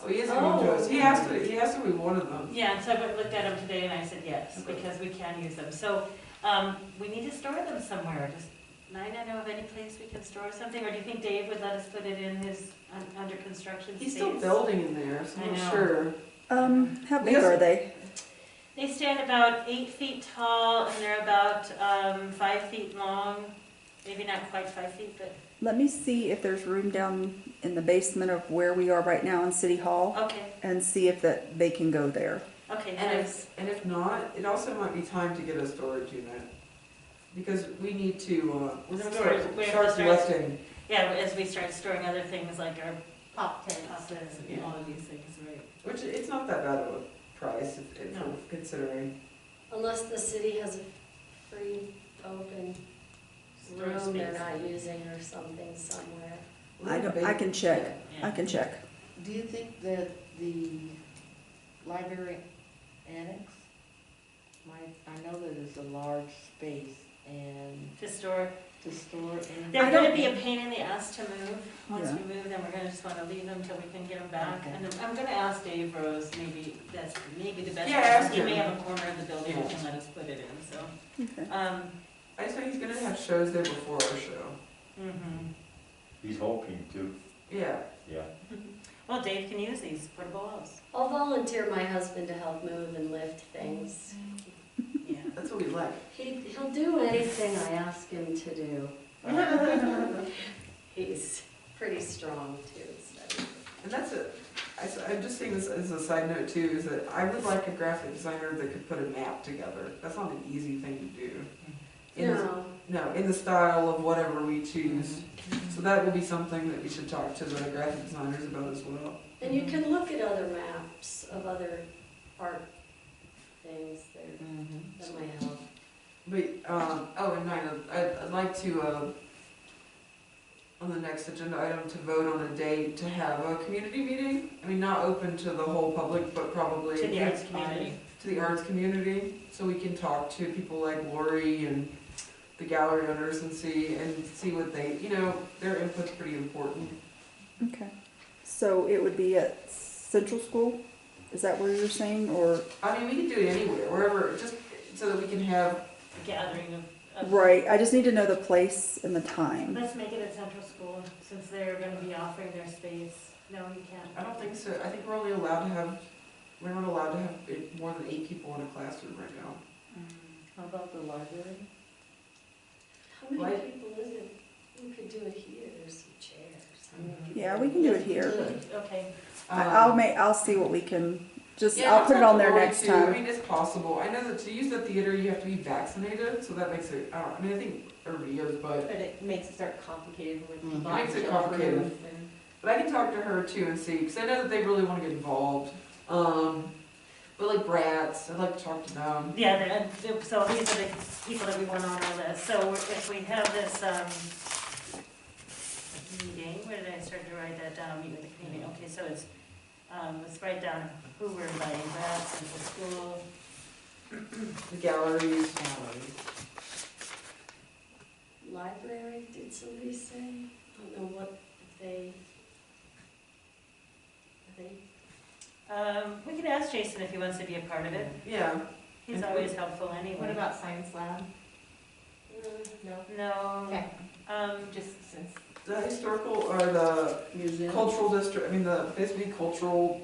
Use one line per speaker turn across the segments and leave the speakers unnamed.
So Oh, he
Oh,
isn't going to, he has to, he has to reward them.
Yeah, so I looked at them today and I said yes,
Okay.
because we can use them. So, um, we need to store them somewhere, just, Nina know of any place we can store something, or do you think Dave would let us put it in his, un- under construction space?
He's still building in there, so
I
I'm
know.
sure.
Um, how big
Yes.
are they?
They stand about eight feet tall and they're about, um, five feet long, maybe not quite five feet, but,
Let me see if there's room down in the basement of where we are right now in City Hall
okay,
and see if that they can go there.
okay,
And
nice.
if, and if not, it also might be time to get a storage unit. Because we need to, uh, we're
Storage, we
gonna
have to
start
start-
collecting.
Yeah, as we start storing other things like our
Pop tents.
buses and
Yeah.
all of these things, right?
Which, it's not that bad of a price if, if
No.
we're considering.
Unless the city has a free open
Storage
room they're
space.
not using or something somewhere.
I don't, I can check, I
Yeah.
can check.
Do you think that the library annex might, I know that it's a large space and
To store,
to store anything.
they're gonna be a pain in the ass to move. Once
Yeah.
we move them, we're gonna just wanna leave them till we can get them back.
Okay.
And I'm- I'm gonna ask Dave Rose, maybe that's, maybe the best.
Yeah,
option.
ask
He may
him.
have a corner of the building
Yeah.
and let us put it in, so.
Okay.
Um,
I just think he's gonna have shows there before our show.
mhm.
He's hoping to,
Yeah.
yeah.
Well, Dave can use these portable walls.
I'll volunteer my husband to help move and lift things.
Yeah.
That's what we like.
He, he'll do anything I ask him to do. He's pretty strong too, so.
And that's a, I, s- I'm just saying this as a side note too, is that I would like a graphic designer that could put a map together. That's not an easy thing to do. In the-
No,
No, in the style of whatever we choose.
Mm-hmm.
So that would be something that we should talk to the graphic designers about as well.
and you can look at other maps of other art things there
Mhm.
that might help.
But, um, oh, and Nina, I'd, I'd like to, uh, on the next agenda item, to vote on a date to have a community meeting. I mean, not open to the whole public, but probably.
To the arts community.
to the arts community, so we can talk to people like Lori and the gallery owners and see, and see what they, you know, their input's pretty important.
Okay. So it would be at Central School? Is that where you're saying, or,
I mean, we can do it anywhere, wherever, just so that we can have,
Gathering of. of-
right, I just need to know the place and the time.
Let's make it at Central School, since they're gonna be offering their space. No, you can't.
I don't think so, I think we're only allowed to have, we're not allowed to have it- more than eight people in a classroom right now.
How about the library?
How many
Right.
people is it? We could do it here, there's some chairs. How many people-
Yeah, we can do it here.
Okay.
I- I'll
Um,
make, I'll see what we can, just,
yeah,
I'll put it on there
Lori,
next
too. I
time.
mean, it's possible, I know that to use the theater, you have to be vaccinated, so that makes it, I don't, I mean, I think everybody is, but,
But it makes it start complicated with
Mhm.
the
Makes Mm. it complicated.
and-
but I can talk to her too and see, because I know that they really want to get involved. Um, but like brats, I'd like to talk to them.
Yeah, and and so these are the people that we want on our list. So if we have this, um, meeting, where did I start to write that down, meet with the community?
Mm-hmm.
Okay, so it's, um, let's write down who we're inviting, Brad, Central School,
The galleries,
Library, did somebody say? I don't know what if they, if they
Um, we can ask Jason if he wants to be a part of it.
yeah.
He's always helpful anyway.
Mm-hmm. What about science lab? No?
No.
Okay.
Um,
Just since.
The historical or the
Museum?
cultural district, I mean, the basically cultural,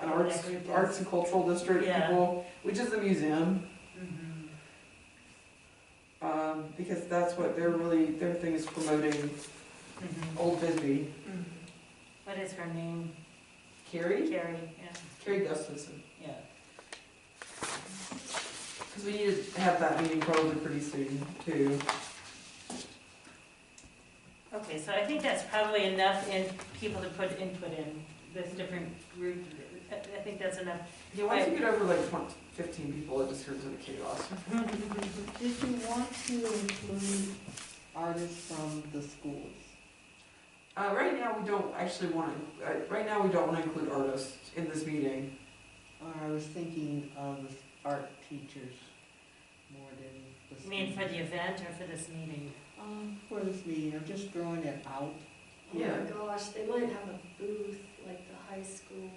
and arts,
Whatever it
arts and cultural district
Yeah.
people, which is the museum,
mhm.
um, because that's what they're really, their thing is promoting
Mhm.
Old Bisbee.
Mhm. What is her name?
Carrie?
Carrie, yeah,
Carrie Gustafson.
yeah.
Because we need to have that meeting probably pretty soon, too.
Okay, so I think that's probably enough in people to put input in, this different group, I I think that's enough.
Yeah, once you get over like 20 fifteen people, it just turns into chaos.
Did you want to include artists from the schools?
Uh, right now, we don't actually want to, uh, right now, we don't want to include artists in this meeting.
Or I was thinking of the art teachers more than the
You mean
schools.
for the event or for this meeting?
Um, for this meeting, I'm just drawing it out.
Oh
Yeah.
my gosh, they might have a booth like the high school